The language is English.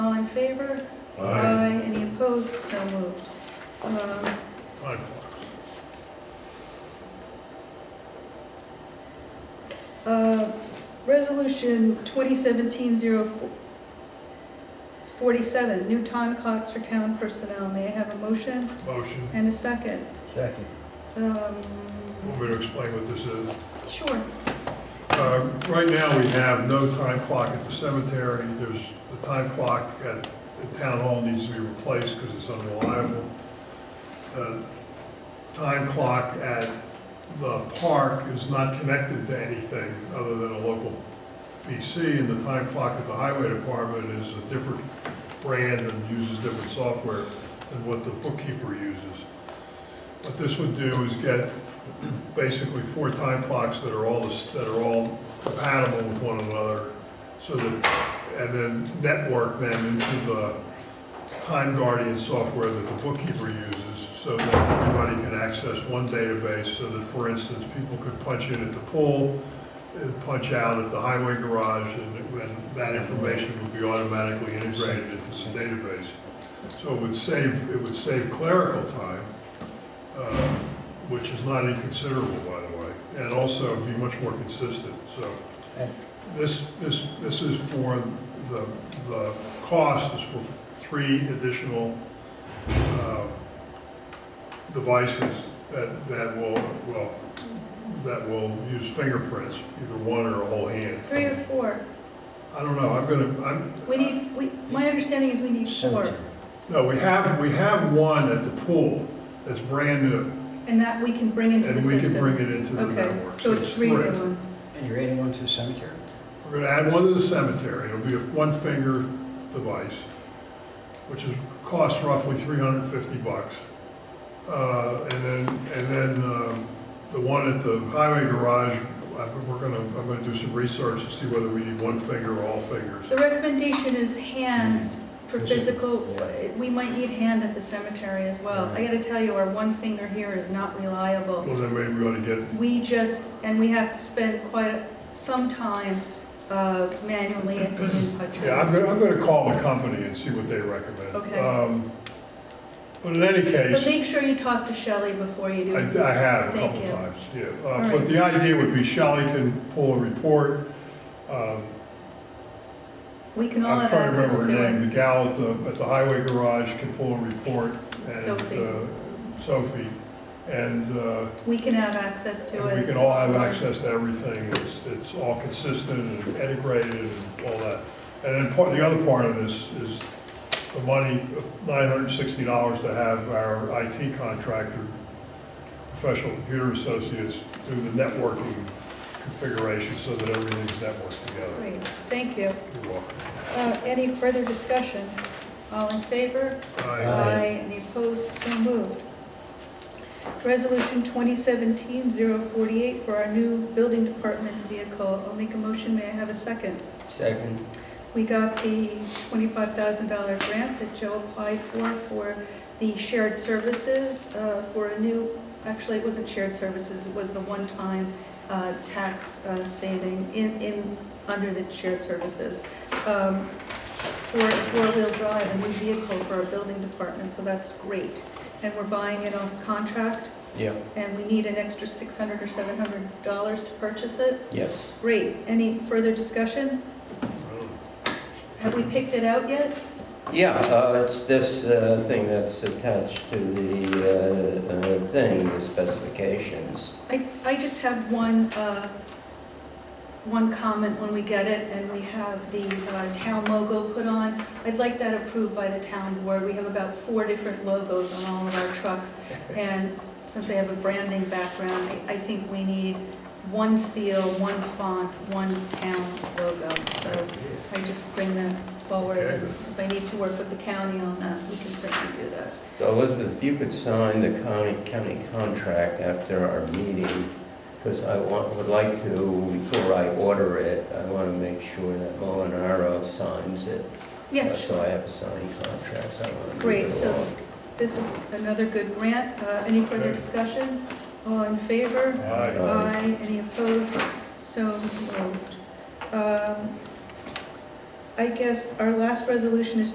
favor? Aye. Any opposed? So moved. Um, Time clocks. uh, Resolution 2017-047, new time clocks for town personnel. May I have a motion Motion, and a second? Second. Um, want me to explain what this is? Sure. Uh, Right now, we have no time clock at the cemetery. There's, the time clock at the town hall needs to be replaced because it's unreliable. Uh, Time clock at the park is not connected to anything other than a local PC, and the time clock at the highway department is a different brand and uses different software than what the bookkeeper uses. What this would do is get basically four time clocks that are all, that are all compatible with one another, so that, and then network them into the Time Guardian software that the bookkeeper uses, so that everybody can access one database, so that, for instance, people could punch in at the pool, and punch out at the highway garage, and it- and that information would be automatically integrated into the database. So it would save, it would save clerical time, uh, which is not inconsiderable, by the way, and also be much more consistent, so. This, this, this is for, the, the cost is for three additional uh, devices that, that will, well, that will use fingerprints, either one or a whole hand. Three or four? I don't know, I'm gonna, I'm. We need, we, my understanding is we need four, Cemetery. No, we have, we have one at the pool that's brand new, and that we can bring into the and we can bring system. it into the Okay, network. so it's three new ones. And you're adding one to the cemetery? We're gonna add one to the cemetery, it'll be a one-finger device, which is, costs roughly three hundred and fifty bucks. Uh, and then, and then, um, the one at the highway garage, I- we're gonna, I'm gonna do some research to see whether we need one finger or all fingers. The recommendation is Mm. hands for physical, we might need hand at the cemetery as well. I gotta tell you, our one finger here is not reliable. Well, then maybe we ought to get, We just, and we have to spend quite some time uh, manually emptying yeah, I'm puddles. gonna, I'm gonna call the company and see what they recommend. Okay. Um, But in any case. But make sure you talk to Shelley before you I, do. I have a Thank couple you. times, yeah. All Uh, But right. the idea would be Shelley can pull a report. Um, We can all I'm have trying to access remember her name, to it. the gal at the, at the highway garage can pull a report. and Sophie. uh, Sophie, and, uh, We can have access to it. and we can all have access to everything. It's, it's all consistent and integrated and all that. And then part, the other part of this is the money, nine hundred and sixty dollars to have our IT contractor, professional computer associates, do the networking configuration so that everything's networked together. Great, thank you. You're welcome. Uh, Any further discussion? All in favor? Aye. Aye. Aye. Any opposed? So moved. Resolution 2017-048 for our new building department vehicle. I'll make a motion, may I have a second? Second. We got the $25,000 grant that Joe applied for, for the shared services, uh, for a new, actually, it wasn't shared services, it was the one-time uh, tax uh, saving in, in, under the shared services, um, for a four-wheel drive, a new vehicle for our building department, so that's great. And we're buying it off contract, Yeah, and we need an extra $600 or $700 to purchase it. yes. Great, any further discussion? Have we picked it out yet? Yeah, uh, it's this uh, thing that's attached to the uh, uh, thing, the specifications. I, I just have one, uh, one comment when we get it and we have the uh, town logo put on. I'd like that approved by the town board. We have about four different logos on all of our trucks. And since I have a branding background, I, I think we need one seal, one font, one town logo. So I just bring that forward. and If I need to work with the county on that, we can certainly do that. So Elizabeth, if you could sign the county, county contract after our meeting, because I want, would like to, before I order it, I want to make sure that Molinaro signs it. Yeah, Uh, sure. So I have a signed contract, so I want to. move Great, it so- along. This is another good grant. Uh, Any further Okay. discussion? All in favor? Aye. Aye. Any opposed? So moved. Um, I guess our last resolution is